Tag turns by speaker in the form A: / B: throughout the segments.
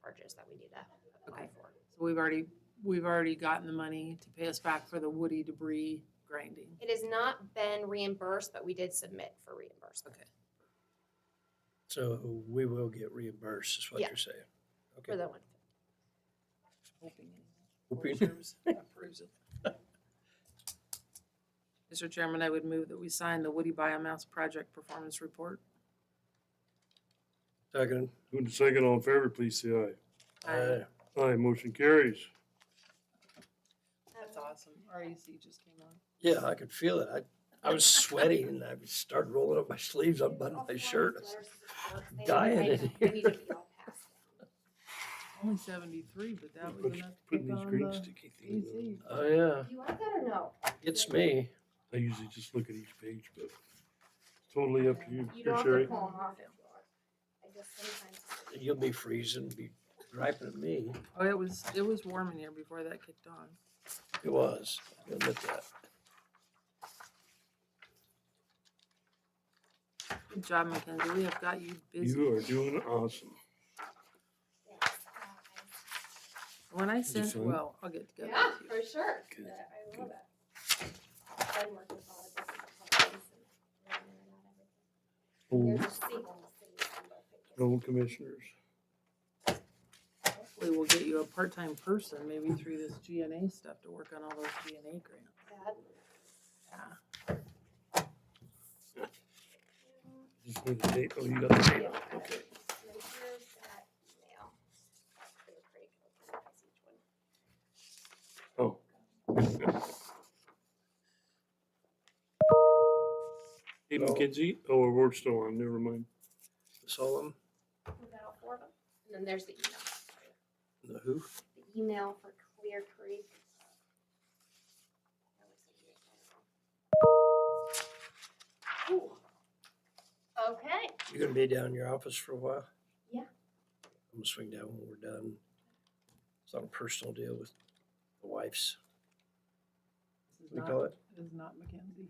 A: dollars that we need to apply for.
B: So we've already, we've already gotten the money to pay us back for the woody debris grinding.
A: It has not been reimbursed, but we did submit for reimbursement
B: Okay.
C: So we will get reimbursed, is what
A: Yeah.
C: you're saying.
A: for
C: Okay.
A: the one.
C: Whooping.
B: Mr. Chairman, I would move that we sign the Woody Biomass Project Performance Report.
C: Second. Uh,
D: Moving to second, all in favor, please say aye.
B: Aye.
D: Aye, motion carries.
B: That's awesome. REC just came on.
C: Yeah, I could feel it. I, I was sweating and I started rolling up my sleeves, unbuttoning my shirt. dying in here.
B: Only seventy-three, but that was
D: Put-
B: enough to take
D: Putting these
B: on
D: green
B: the E
D: sticky things on.
B: EC.
C: Oh, yeah,
A: Do you want that or no?
C: it's me.
D: I usually just look at each page, but it's totally up to you,
A: You don't have to
D: Sherry.
A: pull 'em off if you want. I just sometimes-
C: You'll be freezing, be griping at me.
B: Oh, it was, it was warm in here before that kicked on.
C: It was. I admit that.
B: Good job, Mackenzie. We have got you busy.
D: You are doing awesome.
A: Yes, uh,
B: When I
D: it
B: send,
D: fun?
B: well, I'll get
A: I-
B: together
A: Yeah,
B: with you.
A: for sure.
D: Good,
A: Uh, I
D: good.
A: love it. I've been working with all the different companies and
D: Oh,
A: there's a single city number.
D: No commissioners.
B: Hopefully we'll get you a part-time person, maybe through this GNA stuff to work on all those GNA grants.
A: That-
D: Just need a date. Oh, you got the date.
A: Yeah.
D: Okay.
A: And then here's that email. They were pretty customized, each one.
D: Oh. Hey,
C: No.
D: McKenzie. Oh, we're still on. Never mind.
C: Solemn,
A: Was that all four of them? And then there's the email.
C: the who?
A: The email for Clear Creek. Ooh. Okay.
C: You're gonna be down in your office for a while?
A: Yeah.
C: I'm gonna swing down when we're done. It's on a personal deal with the wife's,
B: This is
C: what do
B: not,
C: you call it?
B: this is not Mackenzie.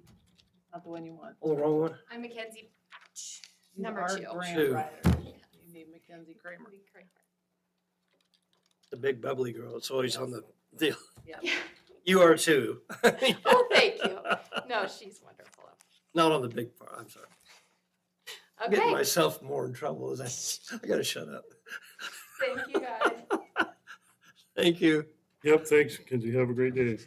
B: Not the one you want.
C: Oh, the wrong one?
A: I'm Mackenzie. Ch-
B: You
A: Number
B: are
A: two.
B: grant
C: Two.
B: writer. You need Mackenzie Kramer.
C: The big bubbly girl. It's always on the deal.
B: Yeah.
C: You are too.
A: Oh, thank you. No, she's wonderful.
C: Not on the big part. I'm sorry. I'm getting
A: Okay,
C: myself more in trouble as I, s- I gotta shut up.
A: thank you guys.
C: Thank you.
D: Yep, thanks, McKenzie. Have a great day.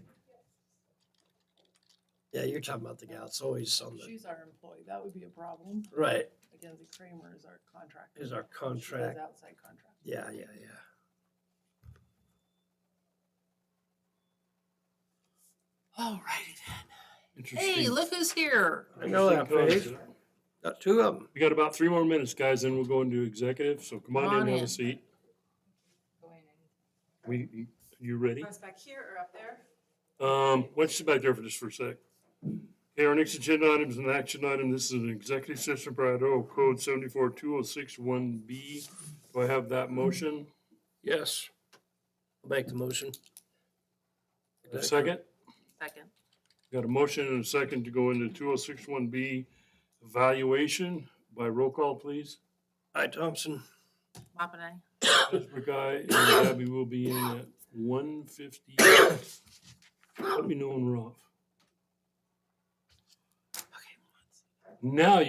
C: Yeah, you're talking about the gal. It's always on the,
B: She's our employee. That would be a problem.
C: right,
B: Mackenzie Kramer is our contractor.
C: is our
B: She does
C: contract.
B: Outside contract.
C: Yeah, yeah, yeah.
B: All righty then. Hey,
D: Interesting.
B: look who's here.
C: I know that
D: interesting
C: page.
D: concept.
C: Got two of them.
D: We got about three more minutes, guys, then we'll go into executive, so come
B: Come
D: on
B: on
D: in, have
B: in.
D: a seat. We, you- you ready?
E: What's back here or up there?
D: Um, let's sit back there for just for a sec. Okay, our next agenda item is an action item. This is an executive session per Idaho Code seventy-four two oh six one B. Do I have that motion?
C: Yes. Make the motion.
D: A second?
B: Second.
D: Got a motion and a second to go into two oh six one B evaluation by roll call, please.
C: Hi, Thompson.
B: Mop and I.
D: Pittsburgh Guy and Gabby will be in at one fifty. Let me know when we're off.
B: Okay.
D: Now